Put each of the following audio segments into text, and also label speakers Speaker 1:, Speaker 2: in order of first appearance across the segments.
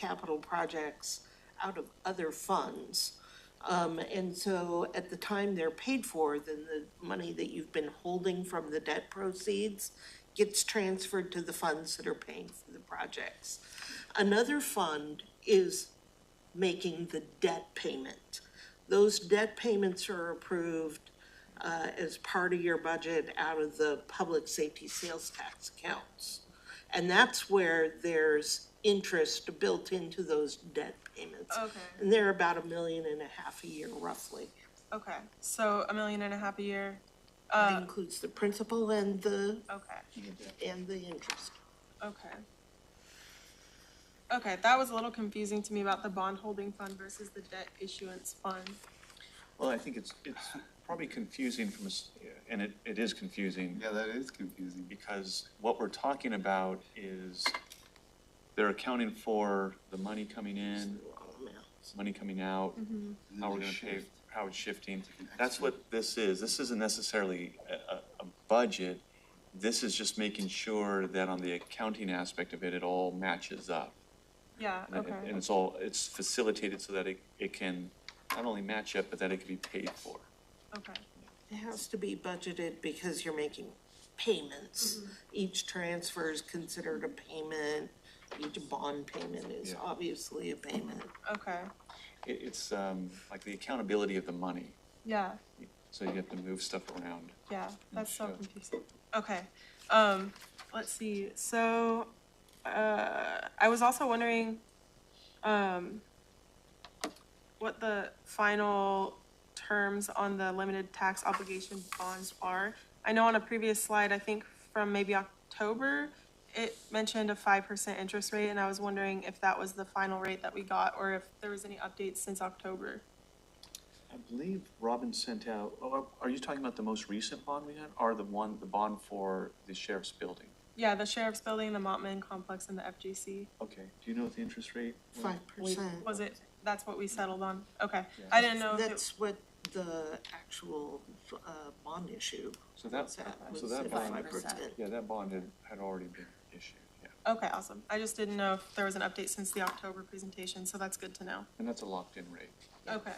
Speaker 1: capital projects out of other funds. Um, and so at the time they're paid for, then the money that you've been holding from the debt proceeds gets transferred to the funds that are paying for the projects. Another fund is making the debt payment. Those debt payments are approved uh, as part of your budget out of the public safety sales tax accounts. And that's where there's interest built into those debt payments.
Speaker 2: Okay.
Speaker 1: And they're about a million and a half a year roughly.
Speaker 2: Okay, so a million and a half a year.
Speaker 1: That includes the principal and the,
Speaker 2: Okay,
Speaker 1: and the interest.
Speaker 2: okay. Okay, that was a little confusing to me about the bond holding fund versus the debt issuance fund.
Speaker 3: Well, I think it's, it's probably confusing from, a s- and it, it is confusing,
Speaker 4: Yeah, that is confusing.
Speaker 3: because what we're talking about is they're accounting for the money coming in, money coming out, how we're gonna pay, how it's shifting. That's what this is. This isn't necessarily a, a, a budget. This is just making sure that on the accounting aspect of it, it all matches up.
Speaker 2: Yeah,
Speaker 3: And it-
Speaker 2: okay,
Speaker 3: And it's all, it's facilitated so that it, it can not only match up, but that it can be paid for.
Speaker 2: okay,
Speaker 1: It has to be budgeted because you're making payments.
Speaker 3: Mm-hmm.
Speaker 1: Each transfer is considered a payment. Each bond payment is
Speaker 3: Yeah.
Speaker 1: obviously a payment.
Speaker 2: okay,
Speaker 3: It, it's, um, like the accountability of the money,
Speaker 2: yeah,
Speaker 3: so you have to move stuff around.
Speaker 2: yeah, that's so
Speaker 3: sure.
Speaker 2: confusing. Okay, um, let's see, so, uh, I was also wondering, um, what the final terms on the limited tax obligation bonds are. I know on a previous slide, I think from maybe October, it mentioned a five percent interest rate, and I was wondering if that was the final rate that we got, or if there was any updates since October.
Speaker 3: I believe Robin sent out, oh, are you talking about the most recent bond we had, or the one, the bond for the sheriff's building?
Speaker 2: Yeah, the sheriff's building, the Montman complex, and the FGC.
Speaker 3: Okay, do you know what the interest rate? was?
Speaker 1: Five percent.
Speaker 2: Was it, that's what we settled on? Okay,
Speaker 3: Yeah.
Speaker 2: I didn't know if it,
Speaker 1: That's what the actual, uh, bond issue
Speaker 3: So that,
Speaker 1: was at,
Speaker 3: so
Speaker 1: was
Speaker 3: that
Speaker 1: at five
Speaker 3: bond,
Speaker 1: percent.
Speaker 3: yeah, that bond had, had already been issued, yeah,
Speaker 2: okay, awesome. I just didn't know if there was an update since the October presentation, so that's good to know.
Speaker 3: and that's a locked-in rate.
Speaker 2: Okay,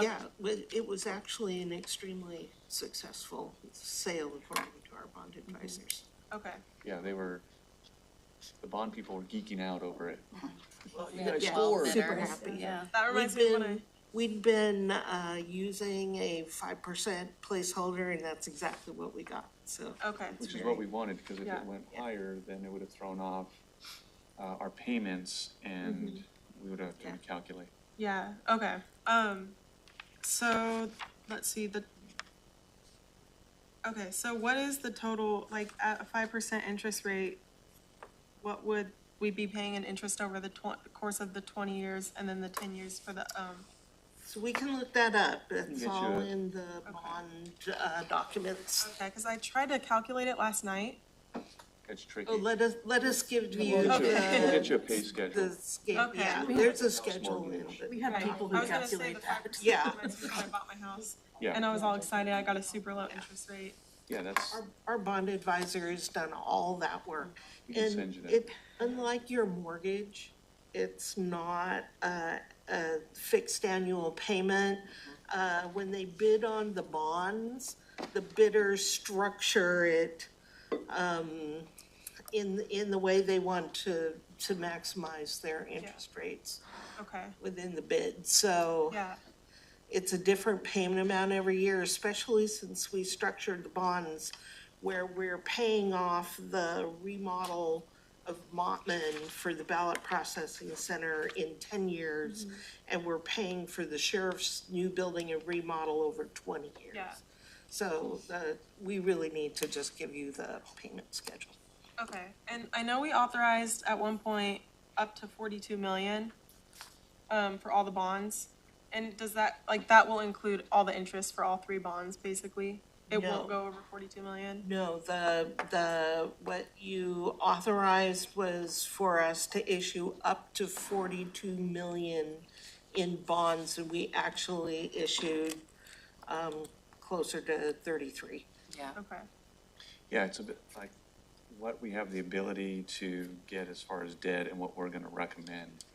Speaker 1: Yeah, but it was actually an extremely successful sale according to our bond
Speaker 3: Mm-hmm.
Speaker 1: advisors.
Speaker 2: okay,
Speaker 3: Yeah, they were, the bond people were geeking out over it.
Speaker 5: We had
Speaker 1: Yeah,
Speaker 5: twelve
Speaker 1: super
Speaker 5: bidders,
Speaker 1: happy.
Speaker 5: Yeah.
Speaker 2: that reminds
Speaker 1: We've
Speaker 2: me of when I.
Speaker 1: been, we'd been, uh, using a five percent placeholder and that's exactly what we got, so.
Speaker 2: Okay,
Speaker 3: Which is what we wanted, because if
Speaker 2: Yeah.
Speaker 3: it went higher, then it would have thrown off uh, our payments and we would have to
Speaker 1: Yeah.
Speaker 3: recalculate.
Speaker 2: yeah, okay, um, so, let's see, the. Okay, so what is the total, like, at a five percent interest rate? What would we be paying in interest over the twen- course of the twenty years and then the ten years for the, um,
Speaker 1: So we can look that up, it's
Speaker 3: get you
Speaker 1: all
Speaker 3: a-
Speaker 1: in the bond, uh, documents.
Speaker 2: okay, cause I tried to calculate it last night.
Speaker 3: It's tricky.
Speaker 1: Oh, let us, let us give you
Speaker 3: We'll get you,
Speaker 2: Okay.
Speaker 3: we'll
Speaker 1: the,
Speaker 3: get you a pay schedule.
Speaker 1: the scale,
Speaker 2: Okay.
Speaker 1: yeah, there's a schedule in it.
Speaker 5: We had
Speaker 2: Right.
Speaker 5: people
Speaker 2: I
Speaker 5: who
Speaker 2: was gonna say the five
Speaker 5: calculate that.
Speaker 2: percent
Speaker 1: Yeah.
Speaker 2: reminds me when I bought my house, and
Speaker 3: Yeah,
Speaker 2: I was all excited, I got a super low interest rate.
Speaker 3: yeah, that's,
Speaker 1: Our, our bond advisor has done all that work.
Speaker 3: We can
Speaker 1: And
Speaker 3: send you that.
Speaker 1: it, unlike your mortgage, it's not a, a fixed annual payment.
Speaker 3: Mm-hmm.
Speaker 1: Uh, when they bid on the bonds, the bidders structure it, um, in, in the way they want to, to maximize their interest rates
Speaker 2: Okay,
Speaker 1: within the bid, so
Speaker 2: yeah,
Speaker 1: it's a different payment amount every year, especially since we structured the bonds where we're paying off the remodel of Montman for the ballot processing center in ten years, and we're paying for the sheriff's new building and remodel over twenty years.
Speaker 2: Yeah.
Speaker 1: So, uh, we really need to just give you the payment schedule.
Speaker 2: okay, and I know we authorized at one point up to forty-two million, um, for all the bonds. And does that, like, that will include all the interest for all three bonds, basically? It
Speaker 1: No.
Speaker 2: won't go over forty-two million?
Speaker 1: No, the, the, what you authorized was for us to issue up to forty-two million in bonds, and we actually issued, um, closer to thirty-three.
Speaker 5: Yeah.
Speaker 2: Okay,
Speaker 3: yeah, it's a bit like what we have the ability to get as far as debt and what we're gonna recommend.